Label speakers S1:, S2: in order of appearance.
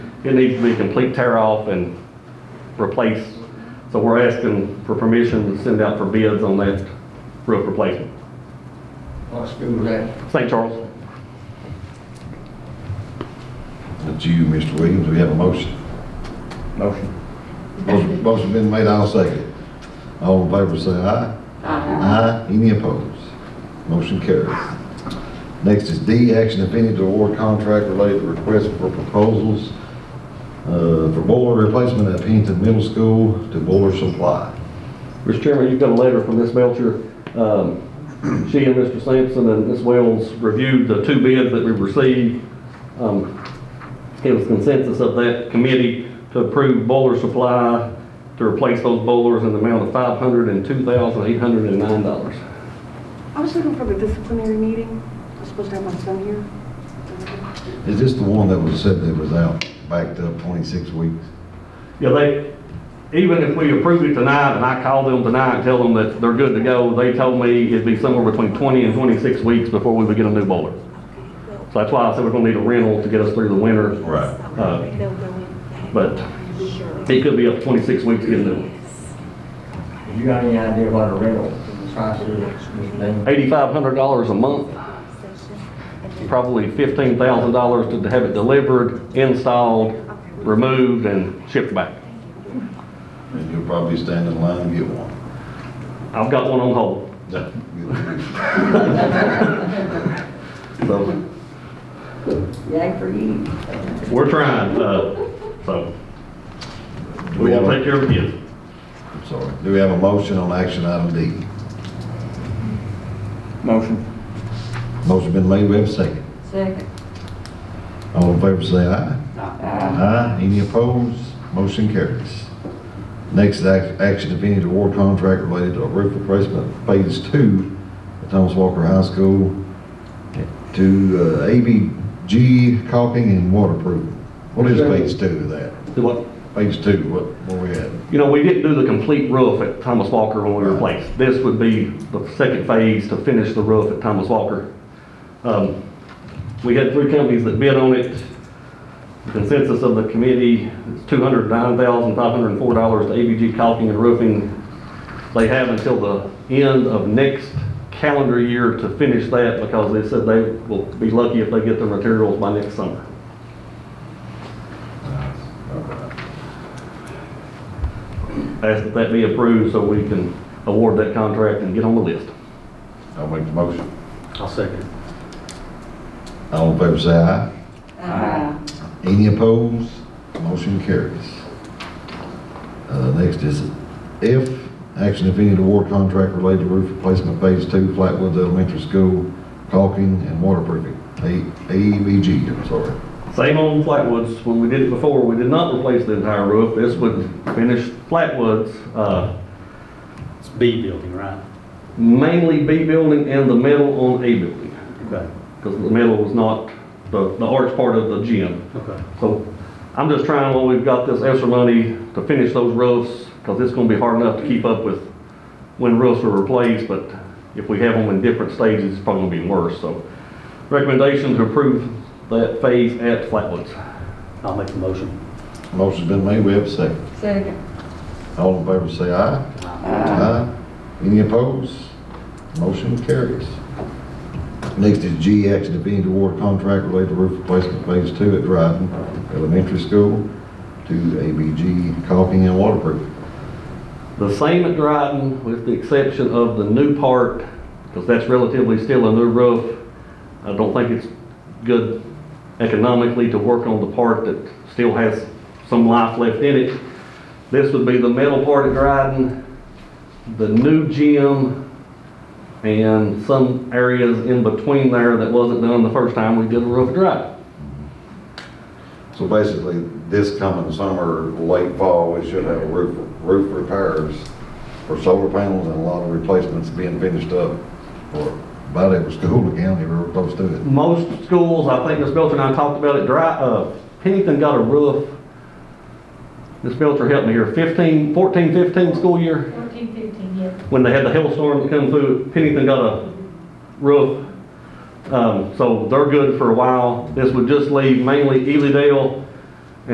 S1: It needs to be a complete tear off and replace. So we're asking for permission to send out for bids on that roof replacement.
S2: What school's that?
S1: St. Charles,
S3: That's you, Mr. Williams, we have a motion.
S2: Motion.
S3: Motion motion been made, I'll second it. All in favor, say aye. Aye. Any opposed? Motion carries. Next is D, action if any to award contract related to request for proposals uh, for boiler replacement at Pennington Middle School to Boiler Supply.
S1: Mr. Chairman, you've got a letter from Ms. Melcher. Um, She and Mr. Sampson and Ms. Wells reviewed the two bids that we received. Um, It was consensus of that committee to approve boiler supply to replace those boilers in the amount of $502,809.
S4: I was looking for the disciplinary meeting. I was supposed to have my son here.
S3: Is this the one that was said that was out, backed up 26 weeks?
S1: Yeah, they, even if we approve it tonight, and I call them tonight and tell them that they're good to go, they told me it'd be somewhere between 20 and 26 weeks before we would get a new boiler. So that's why I said we're gonna need a rental to get us through the winter.
S3: Right.
S1: Uh, But it could be up to 26 weeks to get a new one.
S2: You got any idea what a rental price is, Mr. Dean?
S1: $8,500 a month, probably $15,000 to have it delivered, installed, removed, and shipped back.
S3: And you'll probably stand in line and get one.
S1: I've got one on hold. So
S5: Yay for you.
S1: We're trying, uh, so we will take care of you.
S3: I'm sorry. Do we have a motion on action item D?
S2: Motion.
S3: Motion been made, we have a second.
S5: Second.
S3: All in favor, say aye. Aye. Any opposed? Motion carries. Next is act- action, if any, to award contract related to roof replacement phase two at Thomas Walker High School to uh, ABG caulking and waterproofing. What is phase two of that? Phase two, what, where we at?
S1: You know, we didn't do the complete roof at Thomas Walker when we replaced. This would be the second phase to finish the roof at Thomas Walker. Um, We had three companies that bid on it. The Consensus of the committee is two hundred nine thousand five hundred and four dollars to ABG caulking and roofing. They have until the end of next calendar year to finish that because they said they will be lucky if they get the materials by next summer. ask that that be approved so we can award that contract and get on the list.
S3: I'll make the motion.
S2: I'll second.
S3: All in favor, say aye.
S5: Aye.
S3: Any opposed? Motion carries. Uh, next is F, action if any to award contract related to roof replacement phase two, Flatwoods Elementary School, caulking and waterproofing, A, AEBG, I'm sorry.
S1: Same on Flatwoods, when we did it before, we did not replace the entire roof, this would finish Flatwoods, uh,
S6: It's B building, right?
S1: mainly B building and the metal on A building,
S6: Okay,
S1: because the metal was not the, the arch part of the gym.
S6: okay.
S1: So I'm just trying, while we've got this extra money, to finish those roofs, because it's gonna be hard enough to keep up with when roofs are replaced, but if we have them in different stages, it's probably gonna be worse, so. Recommendation to approve that phase at Flatwoods.
S6: I'll make the motion.
S3: Motion's been made, we have a second.
S5: Second.
S3: All in favor, say aye. Aye. Any opposed? Motion carries. Next is G, action if any to award contract related to roof replacement phase two at Dryden Elementary School to ABG caulking and waterproofing.
S1: The same at Dryden, with the exception of the new part, because that's relatively still a new roof. I don't think it's good economically to work on the part that still has some life left in it. This would be the metal part at Dryden, the new gym, and some areas in between there that wasn't done the first time we did the roof at Dryden.
S3: So basically, this coming summer, late fall, we should have roof, roof repairs for solar panels and a lot of replacements being finished up for about every school in the county, we're close to it.
S1: Most schools, I think Ms. Belcher and I talked about it, dry, uh, Pennington got a roof. Ms. Belcher helped me here, 15, 14, 15 school year,
S7: Fourteen, fifteen, yeah.
S1: when they had the hailstorm that come through, Pennington got a roof. Um, so they're good for a while. This would just leave mainly Elydale